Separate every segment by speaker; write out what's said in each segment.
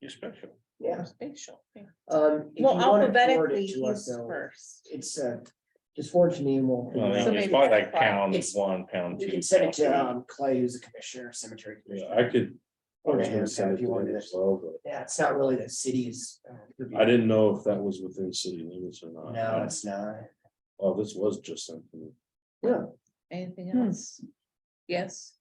Speaker 1: You're special.
Speaker 2: yeah,
Speaker 3: Spatial. yeah.
Speaker 2: um. if you
Speaker 3: Well,
Speaker 2: wanna forward it
Speaker 3: alphabetically,
Speaker 2: to us,
Speaker 3: he's
Speaker 2: though,
Speaker 3: first.
Speaker 2: It's, uh, just forward to me and we'll.
Speaker 1: Well,
Speaker 3: So
Speaker 1: it's
Speaker 3: maybe
Speaker 1: probably
Speaker 3: that's
Speaker 1: like
Speaker 3: why.
Speaker 1: pound
Speaker 2: It's-
Speaker 1: one, pound two.
Speaker 2: You can send it to,
Speaker 1: pound
Speaker 2: um, Clay, who's the commissioner, cemetery.
Speaker 1: three. Yeah,
Speaker 2: commissioner.
Speaker 1: I could. I
Speaker 2: Or
Speaker 1: was
Speaker 2: to
Speaker 1: gonna
Speaker 2: him,
Speaker 1: send it
Speaker 2: if you
Speaker 1: to
Speaker 2: wanted
Speaker 1: him
Speaker 2: it.
Speaker 1: as well, but
Speaker 2: Yeah, it's not really the city's. uh,
Speaker 1: I didn't know if that was within city limits or not.
Speaker 2: No, it's not.
Speaker 1: Oh, this was just something.
Speaker 3: Anything
Speaker 4: Hmm.
Speaker 3: else? Yes.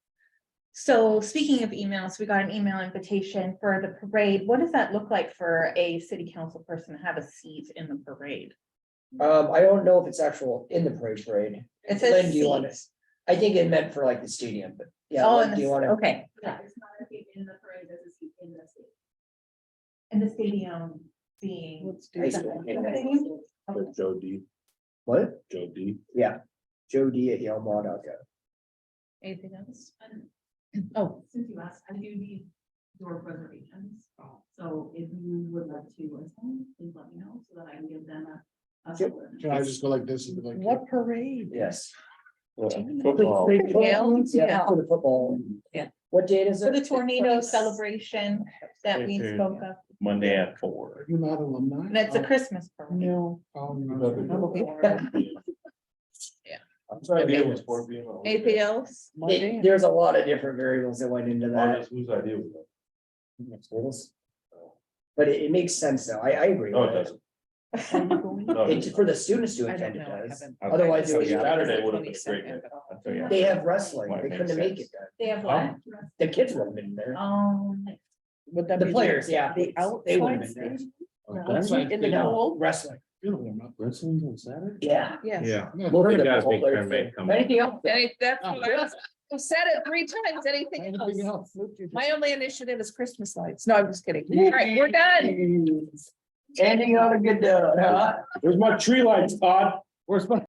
Speaker 3: So speaking of E emails, we got an email invitation for the parade. What does that look like for a city council person to have a seat in the parade?
Speaker 2: Um, I don't know if it's actual in the parade parade.
Speaker 3: It says
Speaker 2: Lynn, do you want
Speaker 3: seat.
Speaker 2: to? I think it meant for like the stadium, but yeah.
Speaker 3: Oh,
Speaker 2: Lynn,
Speaker 3: in
Speaker 2: do you
Speaker 3: the-
Speaker 2: want to?
Speaker 3: okay.
Speaker 5: Yeah, it's not a seat in the parade, there's a seat in the seat.
Speaker 3: And the stadium being.
Speaker 4: Let's do
Speaker 2: High
Speaker 4: that.
Speaker 2: school, yeah.
Speaker 3: Stadium?
Speaker 1: But Joe D,
Speaker 2: What?
Speaker 1: Joe D.
Speaker 2: Joe D at yalemaw.gov.
Speaker 3: Anything else?
Speaker 5: And
Speaker 3: Oh,
Speaker 5: um, since you asked, I do need your reservations. So if you would like to attend, please let me know so that I can give them a. a
Speaker 2: Yep.
Speaker 5: full
Speaker 6: Can I just go like this? and be like,
Speaker 4: What parade?
Speaker 2: Yes.
Speaker 1: Football.
Speaker 4: Big
Speaker 3: Gail?
Speaker 2: Yeah, for the football.
Speaker 3: Yeah.
Speaker 2: What date is it?
Speaker 3: so the tornado
Speaker 2: It's-
Speaker 3: celebration that we
Speaker 1: Mhm.
Speaker 3: spoke of,
Speaker 1: Monday at four.
Speaker 6: You're not alumni? Oh,
Speaker 3: that's a Christmas parade.
Speaker 6: No. Oh, you're not.
Speaker 1: Another
Speaker 4: Okay.
Speaker 1: I'm sorry,
Speaker 3: Maybe
Speaker 1: it
Speaker 3: it
Speaker 1: was
Speaker 3: was-
Speaker 1: four P M.
Speaker 3: Anything else?
Speaker 2: They-
Speaker 4: Monday?
Speaker 2: There's a lot of different variables that went into that.
Speaker 1: Whose idea was
Speaker 2: But it, it makes sense though. I, I agree.
Speaker 1: that? No,
Speaker 2: with
Speaker 1: it doesn't. No, it
Speaker 2: It's
Speaker 1: doesn't.
Speaker 2: for the students to
Speaker 4: I don't
Speaker 2: attend, it
Speaker 4: know, I
Speaker 2: does.
Speaker 4: haven't-
Speaker 2: Otherwise, it
Speaker 1: Oh,
Speaker 2: was,
Speaker 1: yeah.
Speaker 2: they
Speaker 1: Saturday would've been a great
Speaker 4: 22nd
Speaker 1: night.
Speaker 4: at all.
Speaker 1: I'll tell you.
Speaker 2: have wrestling.
Speaker 1: Might
Speaker 2: They
Speaker 1: make
Speaker 2: couldn't make
Speaker 1: sense.
Speaker 2: it. though.
Speaker 3: They have
Speaker 1: Huh?
Speaker 3: what?
Speaker 5: dress.
Speaker 2: The kids would have been there.
Speaker 3: Um,
Speaker 4: Would that
Speaker 2: The
Speaker 4: be
Speaker 2: players, yeah.
Speaker 4: Uh, The
Speaker 2: They
Speaker 4: outside
Speaker 2: would've been there.
Speaker 4: stage?
Speaker 6: That's like-
Speaker 4: In the
Speaker 2: No,
Speaker 4: cold?
Speaker 2: Wrestling.
Speaker 6: You're gonna warm up.
Speaker 1: Wrestling's on Saturday?
Speaker 2: Yeah.
Speaker 4: Yes.
Speaker 1: Yeah.
Speaker 6: Yeah.
Speaker 2: We'll
Speaker 1: You
Speaker 2: hear the
Speaker 1: guys
Speaker 2: whole
Speaker 1: make
Speaker 2: other
Speaker 1: time,
Speaker 2: thing.
Speaker 1: mate, come on.
Speaker 2: Anything else?
Speaker 4: Any- that's
Speaker 6: Oh.
Speaker 4: what I was- I've said it three times, anything
Speaker 6: Anything
Speaker 4: else?
Speaker 6: else?
Speaker 4: My only initiative is Christmas lights. No, I'm just kidding. All right, we're done.
Speaker 2: Ending on a good note, huh?
Speaker 1: Where's my tree lights, Todd? Where's my?